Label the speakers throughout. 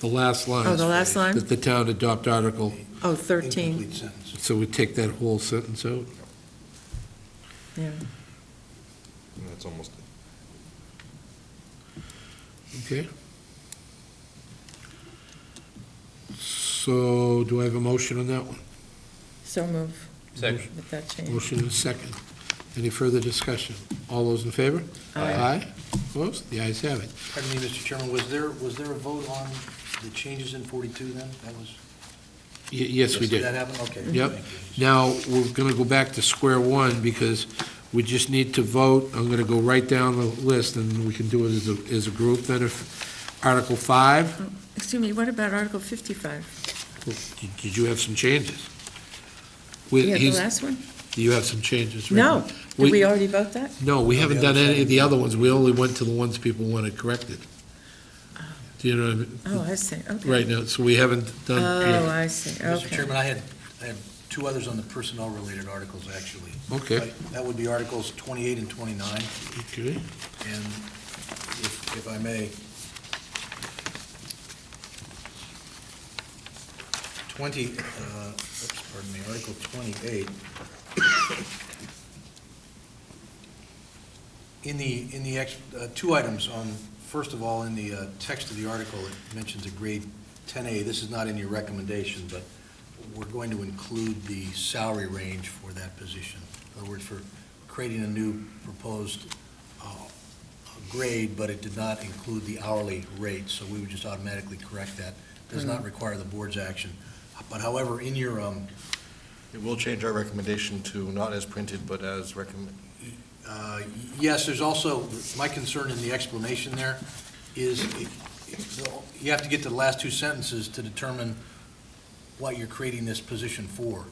Speaker 1: the last line.
Speaker 2: Oh, the last line?
Speaker 1: That the town adopt article,
Speaker 2: Oh, 13,
Speaker 3: Incomplete sentence.
Speaker 1: so we take that whole sentence out?
Speaker 2: yeah.
Speaker 4: And that's almost it.
Speaker 1: Okay. So do I have a motion on that one?
Speaker 2: So move
Speaker 5: Second.
Speaker 2: with that change.
Speaker 1: Motion and a second. Any further discussion? All those in favor? Aye. Opposed? The ayes have it.
Speaker 3: Pardon me, Mr. Chairman, was there, was there a vote on the changes in 42 then? That was?
Speaker 1: Y- Yes, we did.
Speaker 3: That happened, okay.
Speaker 1: Yep.
Speaker 3: Thank you.
Speaker 1: Now, we're going to go back to square one because we just need to vote. I'm going to go right down the list and we can do it as a, as a group then if Article five,
Speaker 2: Excuse me, what about Article 55?
Speaker 1: did you have some changes? We-
Speaker 2: You have the
Speaker 1: he's-
Speaker 2: last one?
Speaker 1: You have some changes, right?
Speaker 2: No. Did we
Speaker 1: We,
Speaker 2: already vote that?
Speaker 1: no, we haven't
Speaker 3: the
Speaker 1: done
Speaker 3: other
Speaker 1: any
Speaker 3: side.
Speaker 1: of the other ones. We only went to the ones people wanted corrected. Do you know what I mean?
Speaker 2: Oh, I see, okay.
Speaker 1: Right now, so we haven't done.
Speaker 2: Oh, I see,
Speaker 3: Mr.
Speaker 2: okay.
Speaker 3: Chairman, I had, I had two others on the personnel-related articles, actually.
Speaker 1: Okay,
Speaker 3: That would be Articles 28 and 29.
Speaker 1: okay.
Speaker 3: And if, if I may, 20, uh, oops, pardon me, Article 28. In the, in the, ex- uh, two items on, first of all, in the uh, text of the article, it mentions a grade 10A. This is not in your recommendation, but we're going to include the salary range for that position. In other words, for creating a new proposed uh, grade, but it did not include the hourly rate, so we would just automatically correct that. Does not require the board's action. But however, in your, um,
Speaker 4: It will change our recommendation to not as printed, but as recommended.
Speaker 3: uh, yes, there's also, my concern in the explanation there is it- it- you have to get to the last two sentences to determine what you're creating this position for.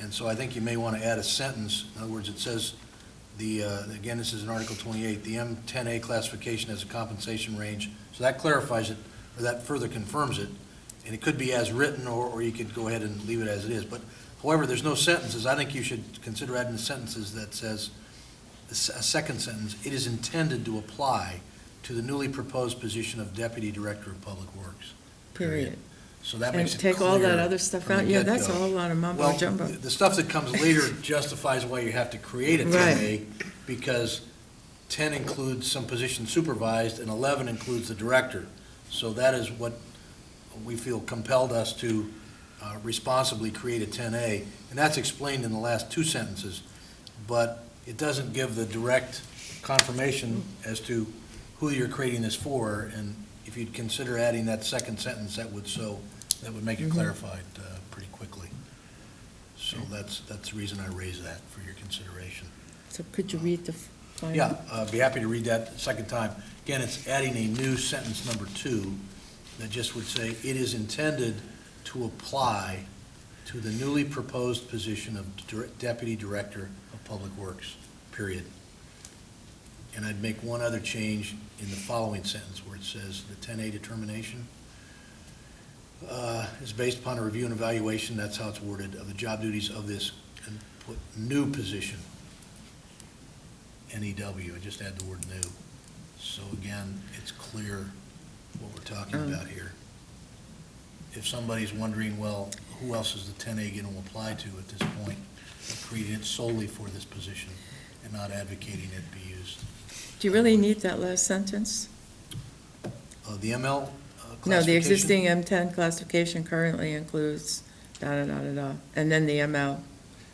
Speaker 3: And so I think you may want to add a sentence. In other words, it says, the, uh, again, this is in Article 28, the M10A classification has a compensation range. So that clarifies it, or that further confirms it. And it could be as written, or, or you could go ahead and leave it as it is. But however, there's no sentences. I think you should consider adding sentences that says, a s- a second sentence, it is intended to apply to the newly proposed position of Deputy Director of Public Works.
Speaker 2: Period.
Speaker 3: So that
Speaker 2: And
Speaker 3: makes it
Speaker 2: take all that
Speaker 3: clear
Speaker 2: other stuff
Speaker 3: from the
Speaker 2: out? Yeah, that's a
Speaker 3: get-go.
Speaker 2: whole lot of mumbo
Speaker 3: Well,
Speaker 2: jumbo.
Speaker 3: the stuff that comes later justifies why you have to create a
Speaker 2: Right.
Speaker 3: 10A, because 10 includes some position supervised, and 11 includes the director. So that is what we feel compelled us to uh, responsibly create a 10A, and that's explained in the last two sentences, but it doesn't give the direct confirmation as to who you're creating this for, and if you'd consider adding that second sentence, that would so, that would make it clarified uh, pretty quickly. So that's, that's the reason I raised that for your consideration.
Speaker 2: So could you read the final?
Speaker 3: Yeah, I'd be happy to read that a second time. Again, it's adding a new sentence number two that just would say, "It is intended to apply to the newly proposed position of dir- Deputy Director of Public Works," period. And I'd make one other change in the following sentence where it says, "The 10A determination uh, is based upon a review and evaluation," that's how it's worded, "of the job duties of this," and put new position. NEW, I just add the word new. So again, it's clear what we're talking
Speaker 2: Um.
Speaker 3: about here. If somebody's wondering, well, who else is the 10A going to apply to at this point, creating it solely for this position and not advocating it be used.
Speaker 2: Do you really need that last sentence?
Speaker 3: Uh, The ML uh, classification?
Speaker 2: No, the existing M10 classification currently includes da-da-da-da-da, and then the ML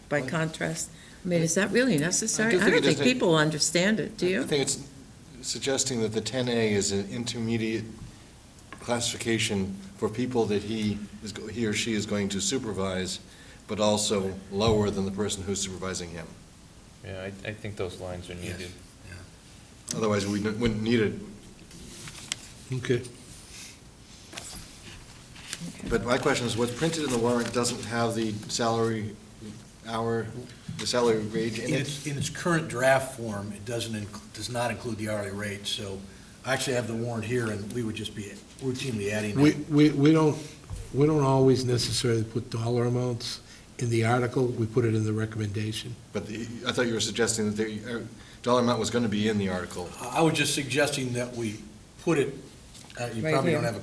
Speaker 2: by
Speaker 4: Well-
Speaker 2: contrast. I mean, is that really necessary?
Speaker 4: do
Speaker 2: I
Speaker 4: think
Speaker 2: don't
Speaker 4: it is
Speaker 2: think
Speaker 4: a-
Speaker 2: people understand it, do
Speaker 4: I
Speaker 2: you?
Speaker 4: think it's suggesting that the 10A is an intermediate classification for people that he is, go- he or she is going to supervise, but also lower than the person who's supervising him.
Speaker 5: Yeah, I, I think those lines are
Speaker 3: Yes.
Speaker 5: needed.
Speaker 4: Otherwise, we n- wouldn't need it.
Speaker 1: Okay.
Speaker 4: But my question is, what's printed in the warrant doesn't have the salary hour, the salary range in
Speaker 3: In
Speaker 4: it?
Speaker 3: its, in its current draft form, it doesn't, inc- does not include the hourly rate, so I actually have the warrant here, and we would just be routinely adding
Speaker 1: We,
Speaker 3: that.
Speaker 1: we, we don't, we don't always necessarily put dollar amounts in the article, we put it in the recommendation.
Speaker 4: But the- I thought you were suggesting that the uh, dollar amount was going to be in the article.
Speaker 3: I I was just suggesting that we put it, uh, you
Speaker 2: Right
Speaker 3: probably
Speaker 2: here.
Speaker 3: don't have a